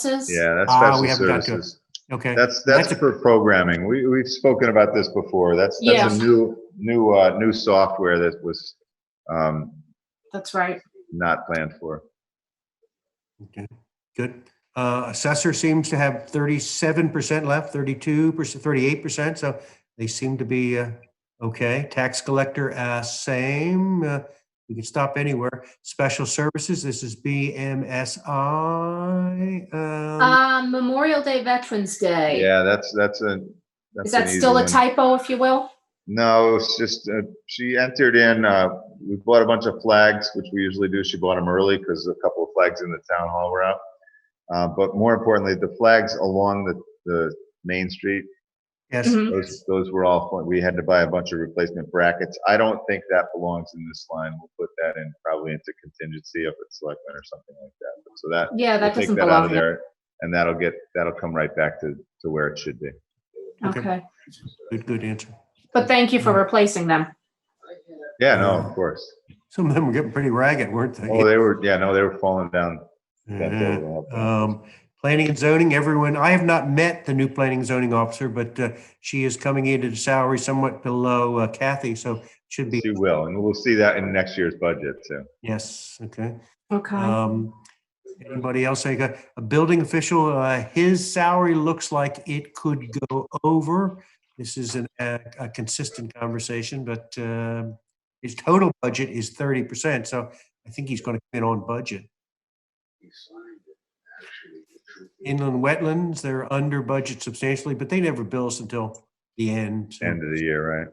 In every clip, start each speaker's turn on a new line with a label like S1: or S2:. S1: services?
S2: Yeah, that's
S3: Ah,
S2: special
S3: we haven't got to it.
S2: services.
S3: Okay,
S2: That's,
S3: That's
S2: that's for
S3: a-
S2: programming. We, we've spoken about this before. That's, that's a
S1: Yeah.
S2: new, new, uh, new software that was, um,
S1: That's right.
S2: not planned for.
S3: Okay. good. Uh, Assessor seems to have thirty-seven percent left, thirty-two percent, thirty-eight percent, so they seem to be uh, okay. Tax collector, uh, same. Uh, We can stop anywhere. Special services, this is BMSI. um,
S1: Um, Memorial Day, Veterans Day.
S2: Yeah, that's, that's a. that's
S1: Is that
S2: an easy
S1: still a
S2: one.
S1: typo, if you will?
S2: No, it's just, uh, she entered in, uh, we bought a bunch of flags, which we usually do. She bought them early because a couple of flags in the town hall were out. Uh, but more importantly, the flags along the, the main street,
S3: Yes,
S1: Mhm.
S2: those, those were all, we had to buy a bunch of replacement brackets. I don't think that belongs in this line. We'll put that in probably into contingency if it's selectmen or something like that. So that,
S1: Yeah,
S2: we'll
S1: that
S2: take
S1: doesn't
S2: that out of
S1: belong here.
S2: there and that'll get, that'll come right back to, to where it should be.
S3: Okay. Mm.
S1: Okay.
S3: good, good answer.
S1: But thank you for replacing them.
S2: Yeah, no, of course.
S3: Some of them were getting pretty ragged, weren't they?
S2: Oh, they were, yeah, no, they were falling down. That
S3: Yeah.
S2: building up.
S3: Uh-huh. Um, planning and zoning, everyone, I have not met the new planning and zoning officer, but uh, she is coming in at a salary somewhat below uh, Kathy, so should be,
S2: She will, and we'll see that in next year's budget too.
S3: yes, okay.
S1: Okay.
S3: Um, anybody else? I got a building official, uh, his salary looks like it could go over. This is an, a a consistent conversation, but um, his total budget is thirty percent, so I think he's going to come in on budget. Inland wetlands, they're under budget substantially, but they never bill us until the end. so.
S2: End of the year,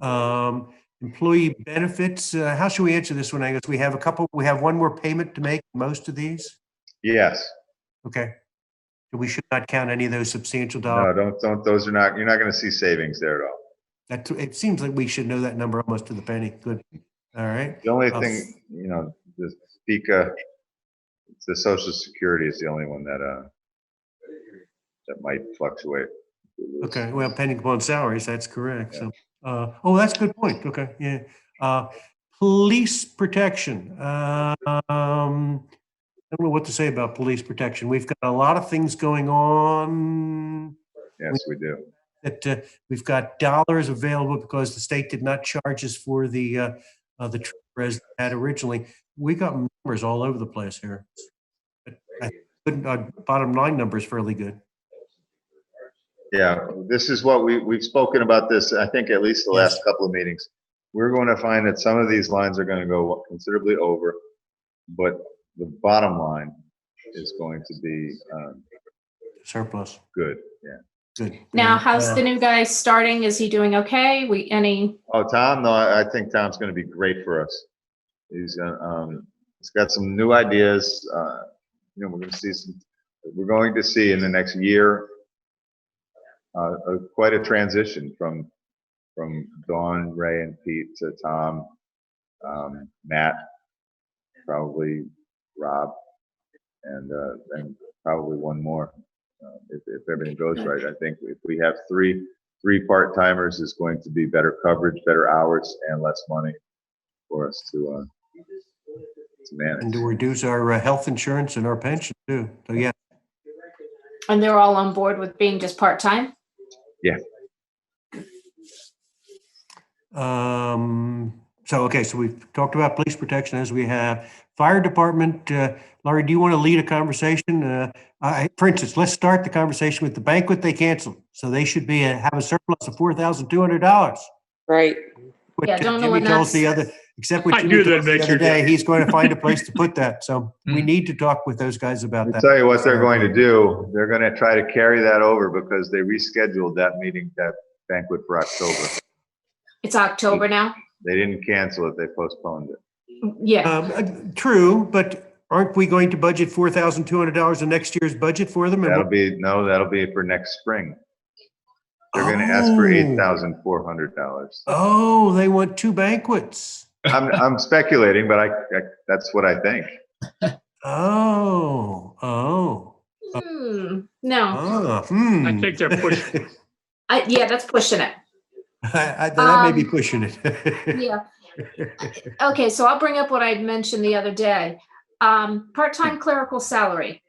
S2: right?
S3: Um, employee benefits, uh, how should we answer this one, Angus? We have a couple, we have one more payment to make, most of these?
S2: Yes.
S3: Okay. We should not count any of those substantial
S2: No,
S3: dollars.
S2: don't, don't, those are not, you're not gonna see savings there at all.
S3: That, it seems like we should know that number almost to the penny. Good. All right.
S2: The only
S3: Of-
S2: thing, you know, the FICA, the social security is the only one that, uh, that might fluctuate.
S3: Okay. Well, pending upon salaries, that's correct. So, uh, oh, that's a good point. Okay. Yeah. Uh, police protection. Uh, um, I don't know what to say about police protection. We've got a lot of things going on.
S2: Yes, we do.
S3: that uh, we've got dollars available because the state did not charge us for the, uh, uh, the trip as had originally. We got numbers all over the place here. But I couldn't- our Bottom line number is fairly good.
S2: Yeah, this is what we, we've spoken about this, I think at least the
S3: Yes.
S2: last couple of meetings. We're going to find that some of these lines are going to go considerably over, but the bottom line is going to be, um,
S3: Surplus,
S2: good, yeah.
S3: good. Uh,
S1: Now,
S3: Yeah.
S1: how's the new guy starting? Is he doing okay? We, any,
S2: Oh, Tom, no, I, I think Tom's going to be great for us. He's, uh, um, he's got some new ideas, uh, you know, we're going to see some, we're going to see in the next year, uh, uh, quite a transition from, from Dawn, Ray and Pete to Tom, um, Matt, probably Rob, and, uh, and probably one more. uh, If, if everything goes right, I think if we have three, three part-timers is going to be better coverage, better hours, and less money for us to, uh, to
S3: And
S2: manage.
S3: to reduce our uh, health insurance and our pension too. So yeah,
S1: and they're all on board with being just part-time?
S3: Um, so, okay, so we've talked about police protection as we have. Fire department, uh, Laurie, do you want to lead a conversation? Uh, I, for instance, let's start the conversation with the banquet they canceled. So they should be, uh, have a surplus of four thousand two hundred dollars.
S4: Right.
S1: Yeah, don't know what
S3: Jimmy told us
S1: that's-
S3: the other, except what
S5: I
S3: Jimmy
S5: knew
S3: told us
S5: that'd
S3: the
S5: make
S3: other
S5: your
S3: day,
S5: day.
S3: he's going to find a place to put that. So we
S5: Mhm.
S3: need to talk with those guys about
S2: I'll
S3: that.
S2: tell you what they're going to do. They're going to try to carry that over because they rescheduled that meeting, that banquet for October.
S1: It's October now?
S2: They didn't cancel it, they postponed it.
S1: Yeah,
S3: Um, uh, true, but aren't we going to budget four thousand two hundred dollars in next year's budget for them? And
S2: That'll
S3: what-
S2: be, no, that'll be for next spring. They're going to ask for eight
S3: Oh.
S2: thousand four hundred dollars.
S3: Oh, they want two banquets.
S2: I'm, I'm speculating, but I, I- that's what I think.
S3: Oh, oh,
S1: Hmm, no,
S3: oh, hmm.
S5: I think they're pushing.
S1: I, yeah, that's pushing it.
S3: I- I- That may be
S1: Um,
S3: pushing it.
S1: Yeah. Okay, so I'll bring up what I had mentioned the other day. Um, part-time clerical salary.